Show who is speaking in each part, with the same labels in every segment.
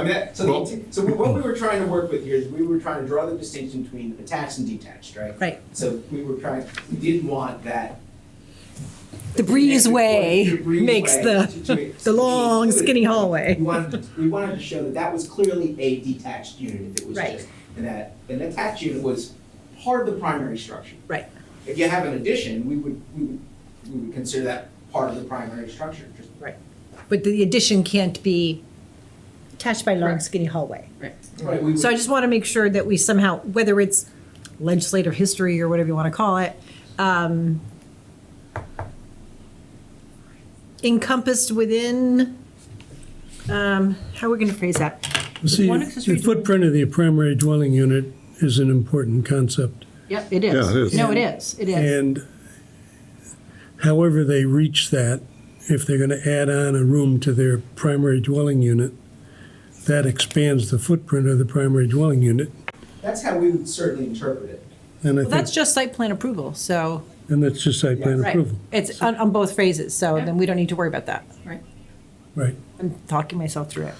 Speaker 1: I mean, that- so, the
Speaker 2: Well-
Speaker 1: inti- so what we were trying to work with here is we were trying to draw the distinction between attached and detached, right?
Speaker 3: Right.
Speaker 1: So we were trying, we didn't want that.
Speaker 3: The breezeway
Speaker 1: breezeway
Speaker 3: makes the,
Speaker 1: situation.
Speaker 3: the long skinny
Speaker 1: We
Speaker 3: hallway.
Speaker 1: wanted, we wanted to show that that was clearly a detached unit if it was
Speaker 3: Right.
Speaker 1: just, and that an attached unit was part of the primary structure.
Speaker 3: Right.
Speaker 1: If you have an addition, we would, we would, we would consider that part of the primary structure, just
Speaker 3: But the addition can't be attached by long skinny hallway.
Speaker 1: Right, we would-
Speaker 3: So I just want to make sure that we somehow, whether it's legislative history or whatever you want to call it, um, encompassed within, um, how are we going to phrase that?
Speaker 4: See,
Speaker 5: One accessory
Speaker 4: the footprint of the primary dwelling unit is an important concept.
Speaker 5: Yep, it
Speaker 2: Yeah, it is.
Speaker 5: is. No, it is, it is.
Speaker 4: And however they reach that, if they're going to add on a room to their primary dwelling unit, that expands the footprint of the primary dwelling unit.
Speaker 1: that's how we would certainly interpret it.
Speaker 4: And I
Speaker 3: Well, that's
Speaker 4: think,
Speaker 3: just site plan approval, so,
Speaker 4: and that's just site plan
Speaker 3: right,
Speaker 4: approval.
Speaker 3: it's on, on both phases, so
Speaker 5: Yeah.
Speaker 3: then we don't need to worry about that.
Speaker 5: Right.
Speaker 4: Right.
Speaker 3: I'm talking myself through it.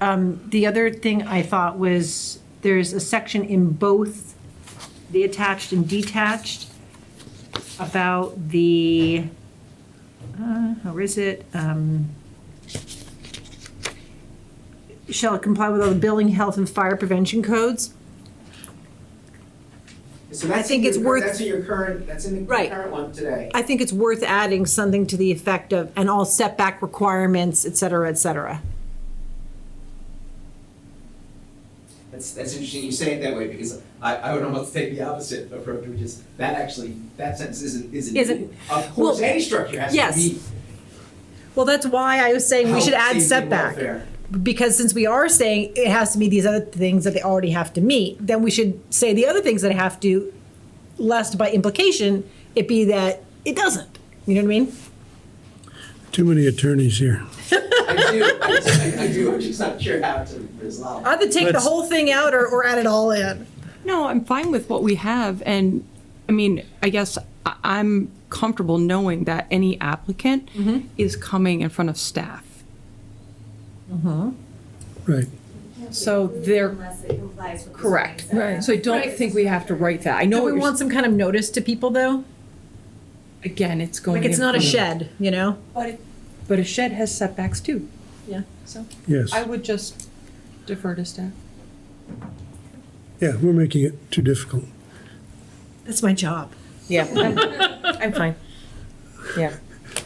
Speaker 5: Um, The other thing I thought was, there's a section in both the attached and detached about the, uh, where is it? Um, Shall comply with all the building, health, and fire prevention codes?
Speaker 1: So that's
Speaker 3: think
Speaker 1: in
Speaker 3: it's
Speaker 1: your-
Speaker 3: worth-
Speaker 1: That's in your current, that's in the
Speaker 3: Right.
Speaker 1: current one today.
Speaker 3: I think it's worth adding something to the effect of, and all setback requirements, et cetera, et cetera.
Speaker 1: That's, that's interesting you say it that way, because I, I would almost take the opposite approach, which is, that actually, that sentence isn't, isn't.
Speaker 3: Isn't-
Speaker 1: Of course,
Speaker 3: well,
Speaker 1: any structure has to
Speaker 3: yes.
Speaker 1: be.
Speaker 3: Well, that's why I was saying we should
Speaker 1: health,
Speaker 3: add
Speaker 1: safety, and
Speaker 3: setback.
Speaker 1: welfare.
Speaker 3: Because since we are saying it has to meet these other things that they already have to meet, then we should say the other things that have to, lest by implication, it be that it doesn't. You know what I mean?
Speaker 4: Too many attorneys here.
Speaker 1: I do, I do, I do, I'm just not sure how to resolve. it.
Speaker 3: Either take the
Speaker 4: Let's-
Speaker 3: whole thing out or, or add it all in.
Speaker 6: No, I'm fine with what we have, and, I mean, I guess I- I'm comfortable knowing that any applicant is coming in front of staff.
Speaker 4: Right.
Speaker 5: So they're-
Speaker 7: Unless it complies with the
Speaker 5: Correct.
Speaker 7: zoning setback.
Speaker 6: So I don't think we have to write that. I know,
Speaker 3: Do we
Speaker 6: what you're-
Speaker 3: want some kind of notice to people though?
Speaker 6: again, it's going.
Speaker 3: Like it's
Speaker 6: in
Speaker 3: not a
Speaker 4: Mm-hmm.
Speaker 6: front of-
Speaker 3: shed, you know?
Speaker 6: But, it- but a shed has setbacks too.
Speaker 3: Yeah.
Speaker 6: So
Speaker 4: Yes.
Speaker 6: I would just defer to staff.
Speaker 4: Yeah, we're making it too difficult.
Speaker 3: That's my job.
Speaker 5: Yeah, I'm- I'm fine. Yeah.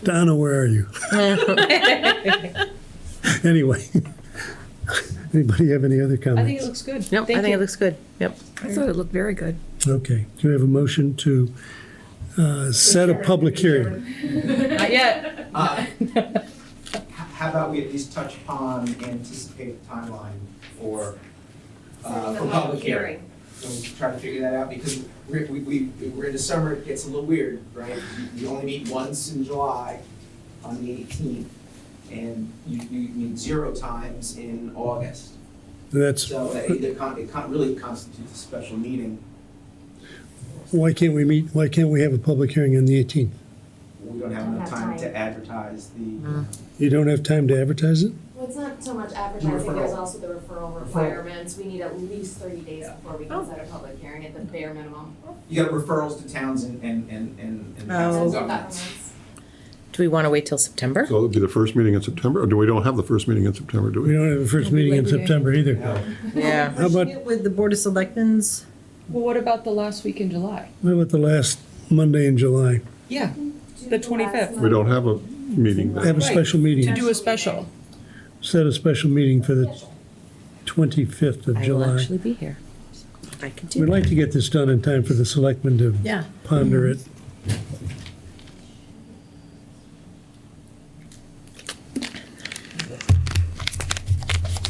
Speaker 4: Donna, where are you? Anyway. Anybody have any other comments?
Speaker 6: I think it looks good.
Speaker 5: Nope, I
Speaker 6: Thank
Speaker 5: think
Speaker 6: you.
Speaker 5: it looks good. Yep.
Speaker 8: I thought it looked very good.
Speaker 4: Okay, do we have a motion to uh, set a public hearing?
Speaker 6: Not yet.
Speaker 1: Uh, h- How about we at least touch upon anticipated timeline for, uh,
Speaker 7: The
Speaker 1: for public hearing? So we try to figure that out because we're, we, we, we're in the summer, it gets a little weird, right? You- You only meet once in July on the eighteenth, and you, you meet zero times in August.
Speaker 4: That's,
Speaker 1: So that either con, it con, really constitutes a special meeting,
Speaker 4: why can't we meet, why can't we have a public hearing on the 18th?
Speaker 1: we don't have enough time to advertise the.
Speaker 4: You don't have time to advertise it?
Speaker 7: Well, it's not so much advertising, there's
Speaker 1: Referral.
Speaker 7: also the referral requirements, we need at least thirty days before we can set a public hearing at the bare minimum.
Speaker 1: You got referrals to towns and, and, and, and and
Speaker 3: Oh.
Speaker 1: council governments.
Speaker 7: Governments.
Speaker 8: Do we want to wait till September?
Speaker 2: So it'll be the first meeting in September, or do we don't have the first meeting in September, do
Speaker 4: We
Speaker 2: we?
Speaker 4: don't have a first meeting in September either.
Speaker 1: Uh,
Speaker 8: Yeah.
Speaker 4: How about,
Speaker 3: With the Board of Selectmen's
Speaker 6: Well, what about the last week in July?
Speaker 4: how about the last Monday in July?
Speaker 6: Yeah,
Speaker 7: Do
Speaker 6: The
Speaker 7: last
Speaker 6: 25th.
Speaker 7: month.
Speaker 2: We don't have a meeting
Speaker 4: Have
Speaker 2: then.
Speaker 4: a special meeting,
Speaker 6: do a special.
Speaker 4: set a special meeting for the 25th of
Speaker 8: I will
Speaker 4: July.
Speaker 8: actually be here. I can do
Speaker 4: We'd
Speaker 8: that.
Speaker 4: like to get this done in time for the selectmen to
Speaker 3: Yeah.
Speaker 4: ponder it.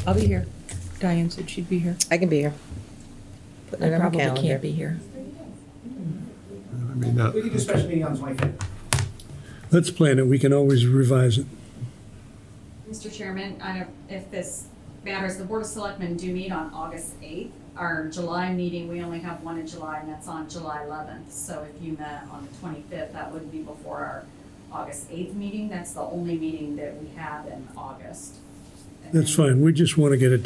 Speaker 6: I'll be here. Diane said she'd be here.
Speaker 8: I can be here. Putting
Speaker 5: I
Speaker 8: it on my
Speaker 5: probably can't
Speaker 8: calendar.
Speaker 5: be here.
Speaker 2: I mean, that-
Speaker 1: We could do a special meeting on the twenty-fifth.
Speaker 4: Let's plan it, we can always revise it.
Speaker 9: Mr. Chairman, I don't, if this matters, the Board of Selectmen do meet on August eighth. Our July meeting, we only have one in July, and that's on July eleventh. So if you met on the twenty-fifth, that would be before our August eighth meeting. That's the only meeting that we have in August.
Speaker 4: That's fine. We just want to get it